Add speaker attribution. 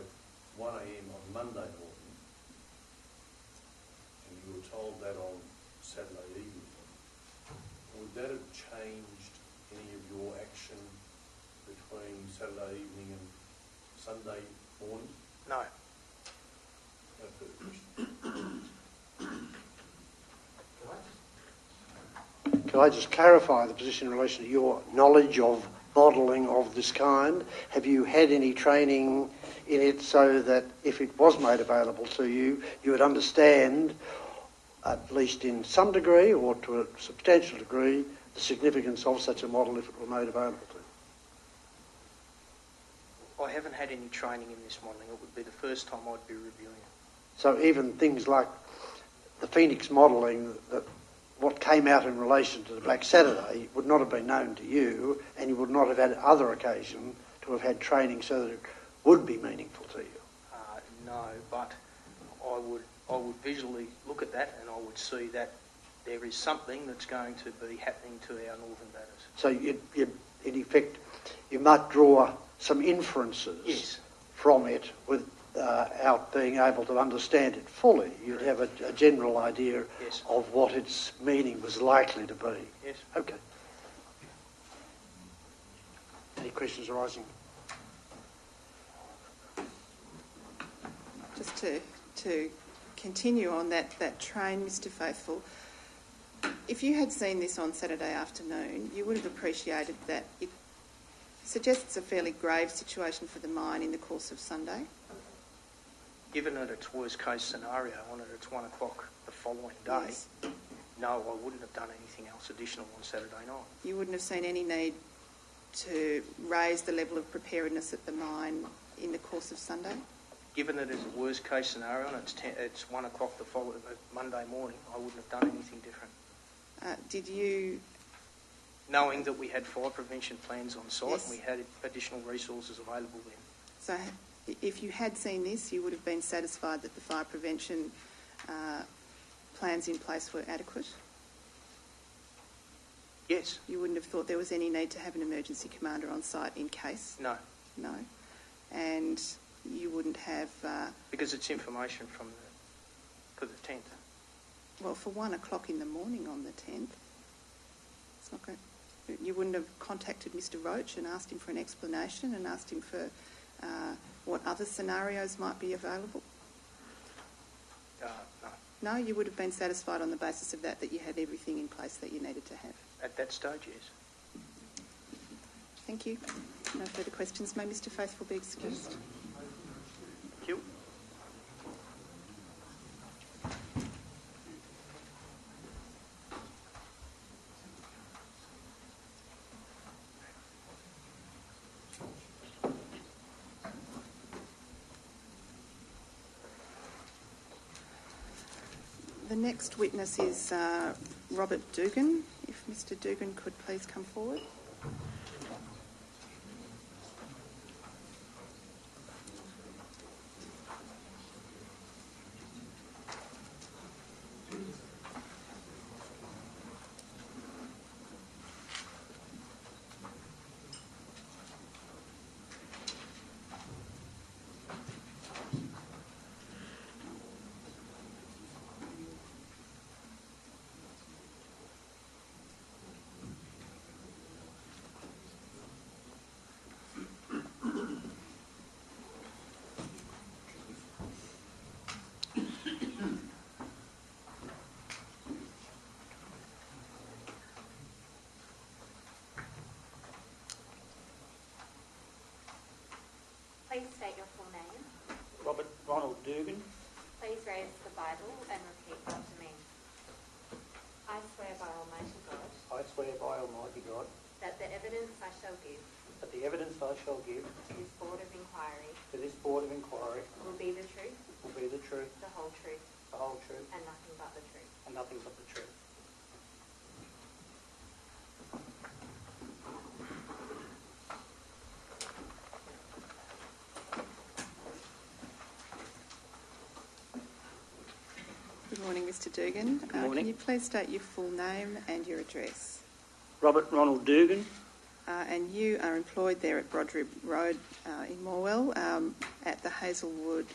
Speaker 1: one AM on Monday morning. And you were told that on Saturday evening. Would that have changed any of your action between Saturday evening and Sunday morning?
Speaker 2: No.
Speaker 1: No further question.
Speaker 3: Could I just clarify the position in relation to your knowledge of modelling of this kind? Have you had any training in it so that if it was made available to you, you would understand, at least in some degree or to a substantial degree, the significance of such a model if it were made available to you?
Speaker 2: I haven't had any training in this modelling. It would be the first time I'd be reviewing it.
Speaker 3: So even things like the Phoenix modelling, that what came out in relation to the Black Saturday would not have been known to you, and you would not have had other occasion to have had training so that it would be meaningful to you.
Speaker 2: Uh, no, but I would, I would visually look at that and I would see that there is something that's going to be happening to our northern batters.
Speaker 3: So you, you, in effect, you might draw some inferences
Speaker 2: Yes.
Speaker 3: from it without being able to understand it fully. You'd have a, a general idea
Speaker 2: Yes.
Speaker 3: of what its meaning was likely to be.
Speaker 2: Yes.
Speaker 3: Okay. Any questions arising?
Speaker 4: Just to, to continue on that, that train, Mr Faithful, if you had seen this on Saturday afternoon, you would have appreciated that it suggests a fairly grave situation for the mine in the course of Sunday.
Speaker 2: Given it its worst case scenario on it, it's one o'clock the following day.
Speaker 4: Yes.
Speaker 2: No, I wouldn't have done anything else additional on Saturday night.
Speaker 4: You wouldn't have seen any need to raise the level of preparedness at the mine in the course of Sunday.
Speaker 2: Given that it's a worst case scenario and it's, ten, it's one o'clock the following Monday morning, I wouldn't have done anything different.
Speaker 4: Uh, did you
Speaker 2: Knowing that we had fire prevention plans on site
Speaker 4: Yes.
Speaker 2: and we had additional resources available then.
Speaker 4: So h- if you had seen this, you would have been satisfied that the fire prevention uh, plans in place were adequate?
Speaker 2: Yes,
Speaker 4: You wouldn't have thought there was any need to have an emergency commander on site in case?
Speaker 2: no,
Speaker 4: No. And you wouldn't have, uh,
Speaker 2: because it's information from the, for the tenth.
Speaker 4: well, for one o'clock in the morning on the 10th, it's not going, you wouldn't have contacted Mr Roach and asked him for an explanation and asked him for uh, what other scenarios might be available?
Speaker 2: Uh, no,
Speaker 4: No, you would have been satisfied on the basis of that, that you had everything in place that you needed to have.
Speaker 2: at that stage, yes.
Speaker 4: Thank you. No further questions. May Mr Faithful be excused.
Speaker 2: Thank you.
Speaker 4: The next witness is uh, Robert Dugan. If Mr Dugan could please come forward.
Speaker 5: Please state your full name.
Speaker 6: Robert Ronald Dugan,
Speaker 5: Please raise the Bible and repeat after me. I swear by Almighty God
Speaker 6: I swear by Almighty God
Speaker 5: that the evidence I shall give
Speaker 6: that the evidence I shall give
Speaker 5: to this Board of Inquiry
Speaker 6: to this Board of Inquiry
Speaker 5: will be the truth,
Speaker 6: will be the truth,
Speaker 5: the whole truth,
Speaker 6: the whole truth,
Speaker 5: and nothing but the truth.
Speaker 6: and nothing but the truth.
Speaker 4: Good morning, Mr Dugan. Good
Speaker 6: morning.
Speaker 4: Can you please state your full name and your address?
Speaker 6: Robert Ronald Dugan,
Speaker 4: Uh, And you are employed there at Brodribb Road uh, in Morwell um, at the Hazelwood